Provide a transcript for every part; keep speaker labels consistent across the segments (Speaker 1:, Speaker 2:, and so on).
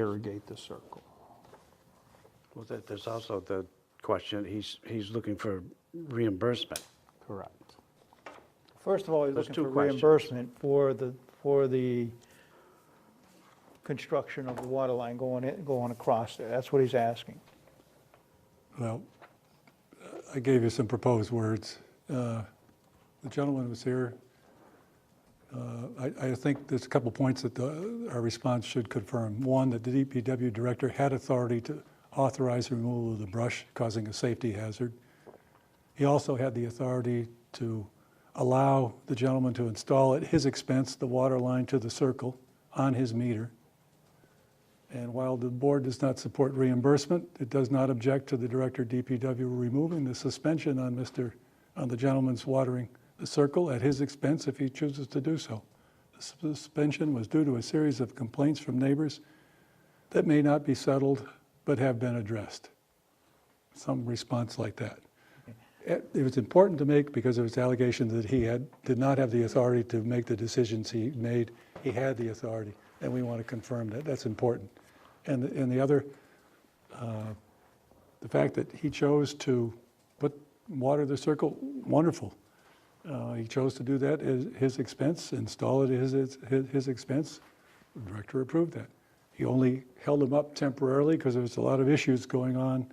Speaker 1: irrigate the circle.
Speaker 2: Well, there- there's also the question, he's, he's looking for reimbursement.
Speaker 1: Correct.
Speaker 3: First of all, he's
Speaker 2: Those
Speaker 3: looking
Speaker 2: two
Speaker 3: for
Speaker 2: questions.
Speaker 3: reimbursement for the, for the construction of the water line going in, going across there. That's what he's asking.
Speaker 4: Well, I gave you some proposed words. Uh, The gentleman was here. Uh, I I think there's a couple points that the- our response should confirm. One, that the DPW director had authority to authorize the removal of the brush causing a safety hazard. He also had the authority to allow the gentleman to install at his expense the water line to the circle on his meter. And while the board does not support reimbursement, it does not object to the director DPW removing the suspension on Mr., on the gentleman's watering the circle at his expense if he chooses to do so. The suspension was due to a series of complaints from neighbors that may not be settled but have been addressed. Some response like that. It it was important to make because there was allegation that he had, did not have the authority to make the decisions he made. He had the authority, and we want to confirm that. That's important. And, the- and the other, uh, the fact that he chose to put water the circle, wonderful. Uh, He chose to do that at his expense, install it at his, his his expense. The Director approved that. He only held him up temporarily because there was a lot of issues going on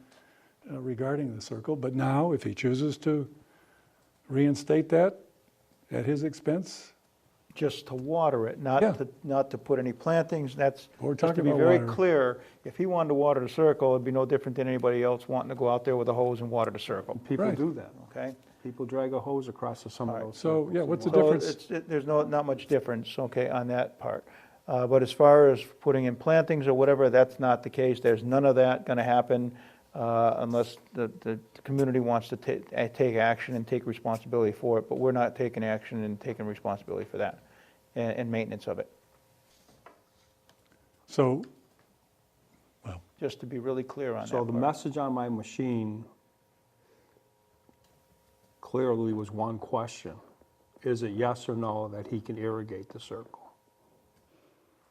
Speaker 4: uh, regarding the circle, but now, if he chooses to reinstate that at his expense,
Speaker 3: Just to water it, not
Speaker 4: Yeah.
Speaker 3: to, not to put any plantings, that's,
Speaker 4: We're
Speaker 3: just to
Speaker 4: talking
Speaker 3: be
Speaker 4: about
Speaker 3: very
Speaker 4: water.
Speaker 3: clear, if he wanted to water the circle, it'd be no different than anybody else wanting to go out there with a hose and water the circle,
Speaker 1: People
Speaker 4: Right.
Speaker 1: do that.
Speaker 3: okay?
Speaker 1: People drag a hose across to some of
Speaker 3: All right,
Speaker 1: those.
Speaker 4: so,
Speaker 1: circles
Speaker 4: yeah,
Speaker 1: and
Speaker 4: what's the
Speaker 1: water.
Speaker 3: So
Speaker 4: difference?
Speaker 3: it's, it- there's no, not much difference, okay, on that part. Uh, But as far as putting in plantings or whatever, that's not the case. There's none of that going to happen uh, unless the, the community wants to ta- eh, take action and take responsibility for it. But we're not taking action and taking responsibility for that and, and maintenance of it.
Speaker 4: so,
Speaker 3: Just to be really clear on that
Speaker 1: So the
Speaker 3: part.
Speaker 1: message on my machine clearly was one question. Is it yes or no that he can irrigate the circle?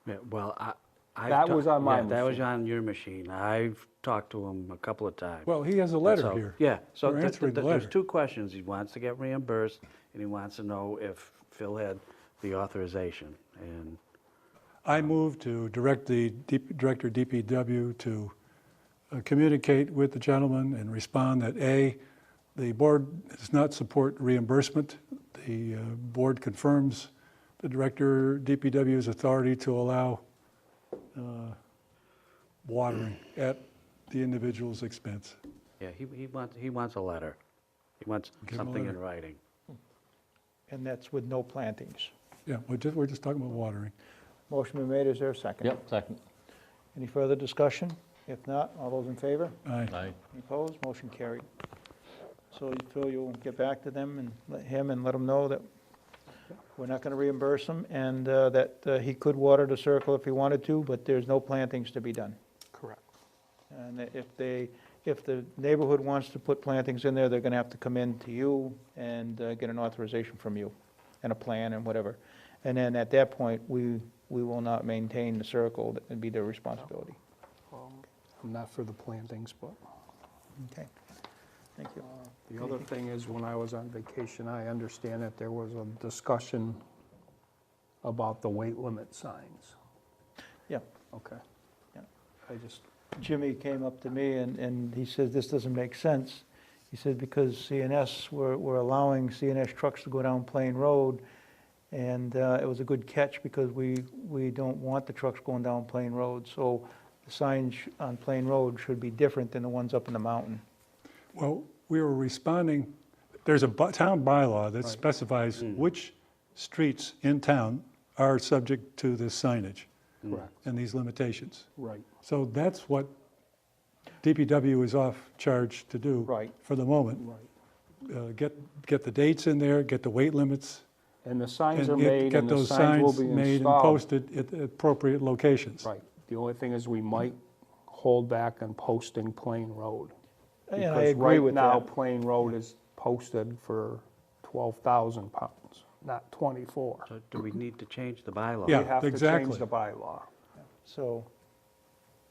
Speaker 2: Yeah, Well, I. I've
Speaker 1: That
Speaker 2: ta-
Speaker 1: was on my
Speaker 2: yeah, That was
Speaker 1: machine.
Speaker 2: on your machine. I've talked to him a couple of times.
Speaker 4: well, he has a letter
Speaker 2: So,
Speaker 4: here.
Speaker 2: Yeah, so
Speaker 4: We're
Speaker 2: th- th-
Speaker 4: answering the
Speaker 2: th- there's
Speaker 4: letter.
Speaker 2: two questions. He wants to get reimbursed, and he wants to know if Phil had the authorization. And
Speaker 4: I move to direct the D- Director DPW to uh, communicate with the gentleman and respond that, A, the board does not support reimbursement. The uh, board confirms the Director DPW's authority to allow uh, watering at the individual's expense.
Speaker 2: Yeah, he, he wants, he wants a letter. He wants
Speaker 4: Give him a
Speaker 2: something in
Speaker 4: letter.
Speaker 2: writing.
Speaker 3: And that's with no plantings.
Speaker 4: Yeah, we're just, we're just talking about watering.
Speaker 3: Motion been made, is there a second?
Speaker 5: Yep, second.
Speaker 3: Any further discussion? If not, all those in favor?
Speaker 4: Aye.
Speaker 5: Aye.
Speaker 3: Any Opposed, motion carried. So Phil, you'll get back to them and let him and let him know that we're not going to reimburse him and uh, that uh, he could water the circle if he wanted to, but there's no plantings to be done.
Speaker 1: Correct.
Speaker 3: And if they, if the neighborhood wants to put plantings in there, they're going to have to come in to you and uh, get an authorization from you and a plan and whatever. And then at that point, we, we will not maintain the circle, that would be their responsibility.
Speaker 1: Um, I'm not for the plantings, but
Speaker 3: Okay, thank you.
Speaker 1: the other thing is, when I was on vacation, I understand that there was a discussion about the weight limit signs.
Speaker 3: Yeah.
Speaker 1: Okay.
Speaker 3: Yeah.
Speaker 1: I just,
Speaker 3: Jimmy came up to me and, and he says, this doesn't make sense. He said, because CNS, we're, we're allowing CNS trucks to go down Plain Road. And uh, it was a good catch because we, we don't want the trucks going down Plain Road. So the signs on Plain Road should be different than the ones up in the mountain.
Speaker 4: Well, we were responding, there's a bu- town bylaw that
Speaker 1: Right.
Speaker 4: specifies
Speaker 1: Mm.
Speaker 4: which streets in town are subject to this signage
Speaker 1: correct,
Speaker 4: and these limitations.
Speaker 1: right.
Speaker 4: So that's what DPW is off charge to do.
Speaker 3: Right.
Speaker 4: For the moment.
Speaker 1: Right.
Speaker 4: Uh, Get, get the dates in there, get the weight limits.
Speaker 1: And the
Speaker 4: and
Speaker 1: signs are
Speaker 4: get-
Speaker 1: made,
Speaker 4: get
Speaker 1: and the
Speaker 4: those
Speaker 1: signs will be installed.
Speaker 4: Made and posted at appropriate locations.
Speaker 1: Right. The only thing is, we might hold back on posting Plain Road.
Speaker 3: And I agree with
Speaker 1: Because right now,
Speaker 3: that.
Speaker 1: Plain Road is posted for 12,000 pounds, not 24.
Speaker 2: So do we need to change the bylaw?
Speaker 4: Yeah.
Speaker 1: We have to change
Speaker 4: exactly.
Speaker 1: the bylaw.
Speaker 3: So